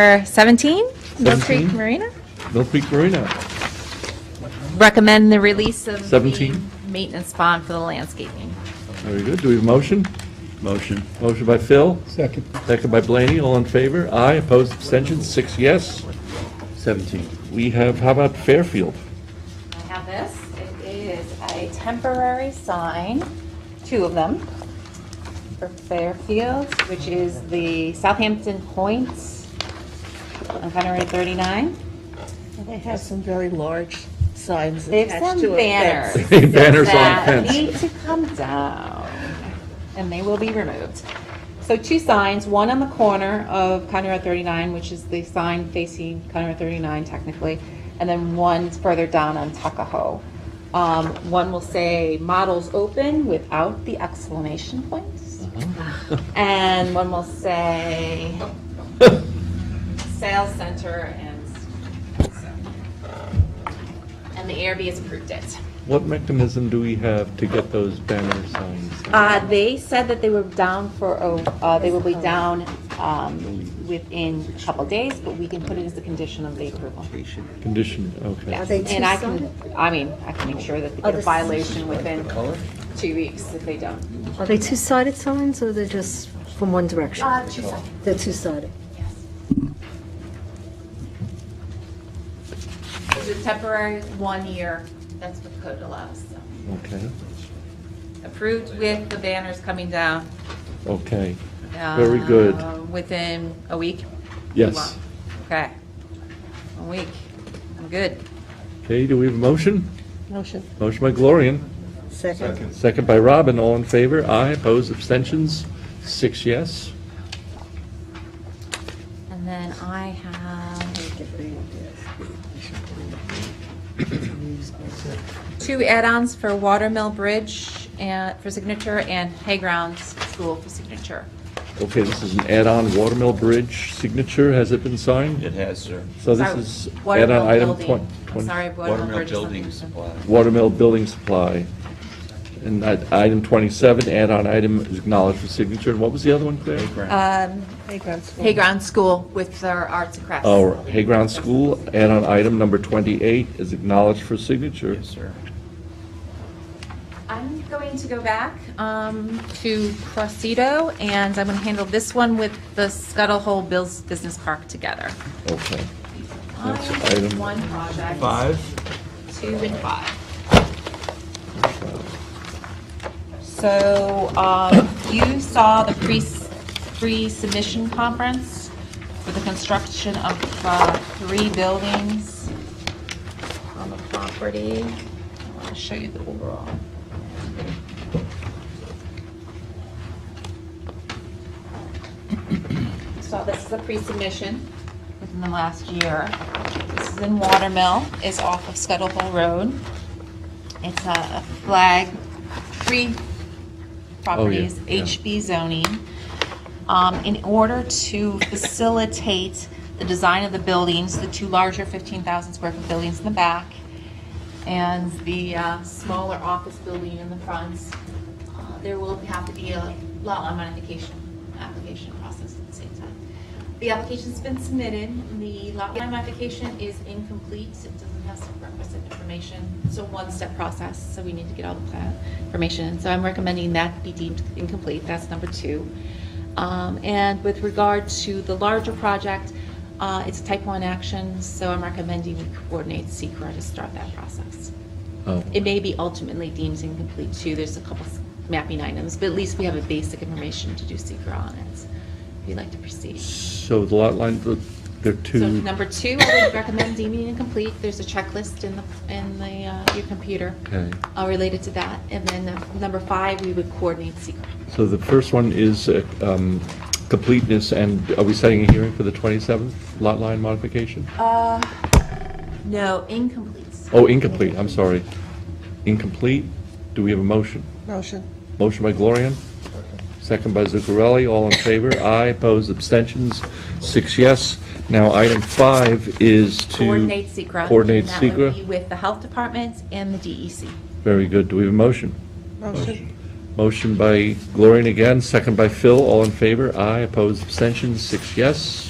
Number 17, Mill Creek 17. Marina. Mill Creek Marina. Recommend the release of the 17. maintenance bond for the landscaping. Very good. Do we have a motion? Motion. Motion by Phil, Second. second by Blaney. All in favor? Aye. Opposed? Abstentions? Six yes. 17. We have, how about Fairfield? I have this. It is a temporary sign, two of them, for Fairfield, which is the Southampton Points on 139. Well, They have some very large signs They have attached some to it. that- banners. Banners on that need fence. to come down, and they will be removed. So two signs, one on the corner of Conroe 39, which is the sign facing Conroe 39 technically, and then one further down on Tuckahoe. Um, One will say "Models Open" without the exclamation points, and one will say "Sales Center" and, and the ARB has approved it. What mechanism do we have to get those banner signs? Uh, they said that they were down for, a- uh, they will be down, um, within a couple days, but we can put it as a condition of the approval. Condition, okay. Are they two And I can, I mean, I can make sure that they get a violation within two weeks if they don't. Are they two-sided signs, or they're just from one direction? Uh, They're two-sided. It's a temporary one year, that's what code allows, so. Okay, Approved with the banners coming down. okay. Very good. uh, Within a week? Yes. Okay. A week. I'm good. Okay, do we have a motion? Motion, Motion by Glorian, second. second by Robin. All in favor? Aye. Opposed? Abstentions? Six yes. And then I have two add-ons for Watermill Bridge and, for signature, and Haygrounds School for signature. Okay, this is an add-on Watermill Bridge signature. Has it been signed? It has, sir. So this Sorry, is Watermill add-on item Building. 20. I'm Sorry, Watermill Watermill Bridge. is something Building different. Supply. Watermill Building Supply. And that item 27, add-on item is acknowledged for signature. And what was the other one, Claire? Uh, Um, Playground school. Haygrounds School with their arts and crafts. Oh, Hayground School, add-on item number 28 is acknowledged for signature. Yes, sir. I'm going to go back um, to Crossedo, and I'm going to handle this one with the Scuttle Hole Bills Business Park together. Okay. That's Find item- One project. two and five. So um, you saw the pre- pre-submission conference for the construction of uh, three buildings on the property. I want to show you the overall. So this is a pre-submission within the last year. This is in Watermill, it's off of Scuttle Hole Road. It's a a flag, free properties, Oh, yeah. HB zoning. Um, In order to facilitate the design of the buildings, the two larger 15,000 square foot buildings in the back and the uh, smaller office building in the front, uh, there will have to be a lot of modification, application process at the same time. The application's been submitted, the lot line modification is incomplete, it doesn't have some requisite information. It's a one-step process, so we need to get all the plan information. So I'm recommending that be deemed incomplete, that's number two. Um, And with regard to the larger project, uh, it's a type one action, so I'm recommending we coordinate SECR to start that process. Oh, It may be ultimately deemed incomplete too, there's a couple mapping items, but at least we have a basic information to do SECR on it, if you'd like to proceed. so the lot line, the- there are So two, number two, I would recommend deeming incomplete. There's a checklist in the, in the, uh, your computer okay. uh, related to that. And then uh, number five, we would coordinate secret. So the first one is uh, um, completeness, and are we setting a hearing for the 27th lot line modification? Uh, no, incomplete. Oh, incomplete, I'm sorry. Incomplete, do we have a motion? Motion, Motion by Glorian, second by Zuccarelli, all in favor, aye, opposed, abstentions, six yes. Now, item five is to... Coordinate secret. And Coordinate that would be SECR. with the health department and the E DEC. Very good, do we have a motion? motion, Motion by Glorian again, second by Phil, all in favor, aye, opposed, abstentions, six yes.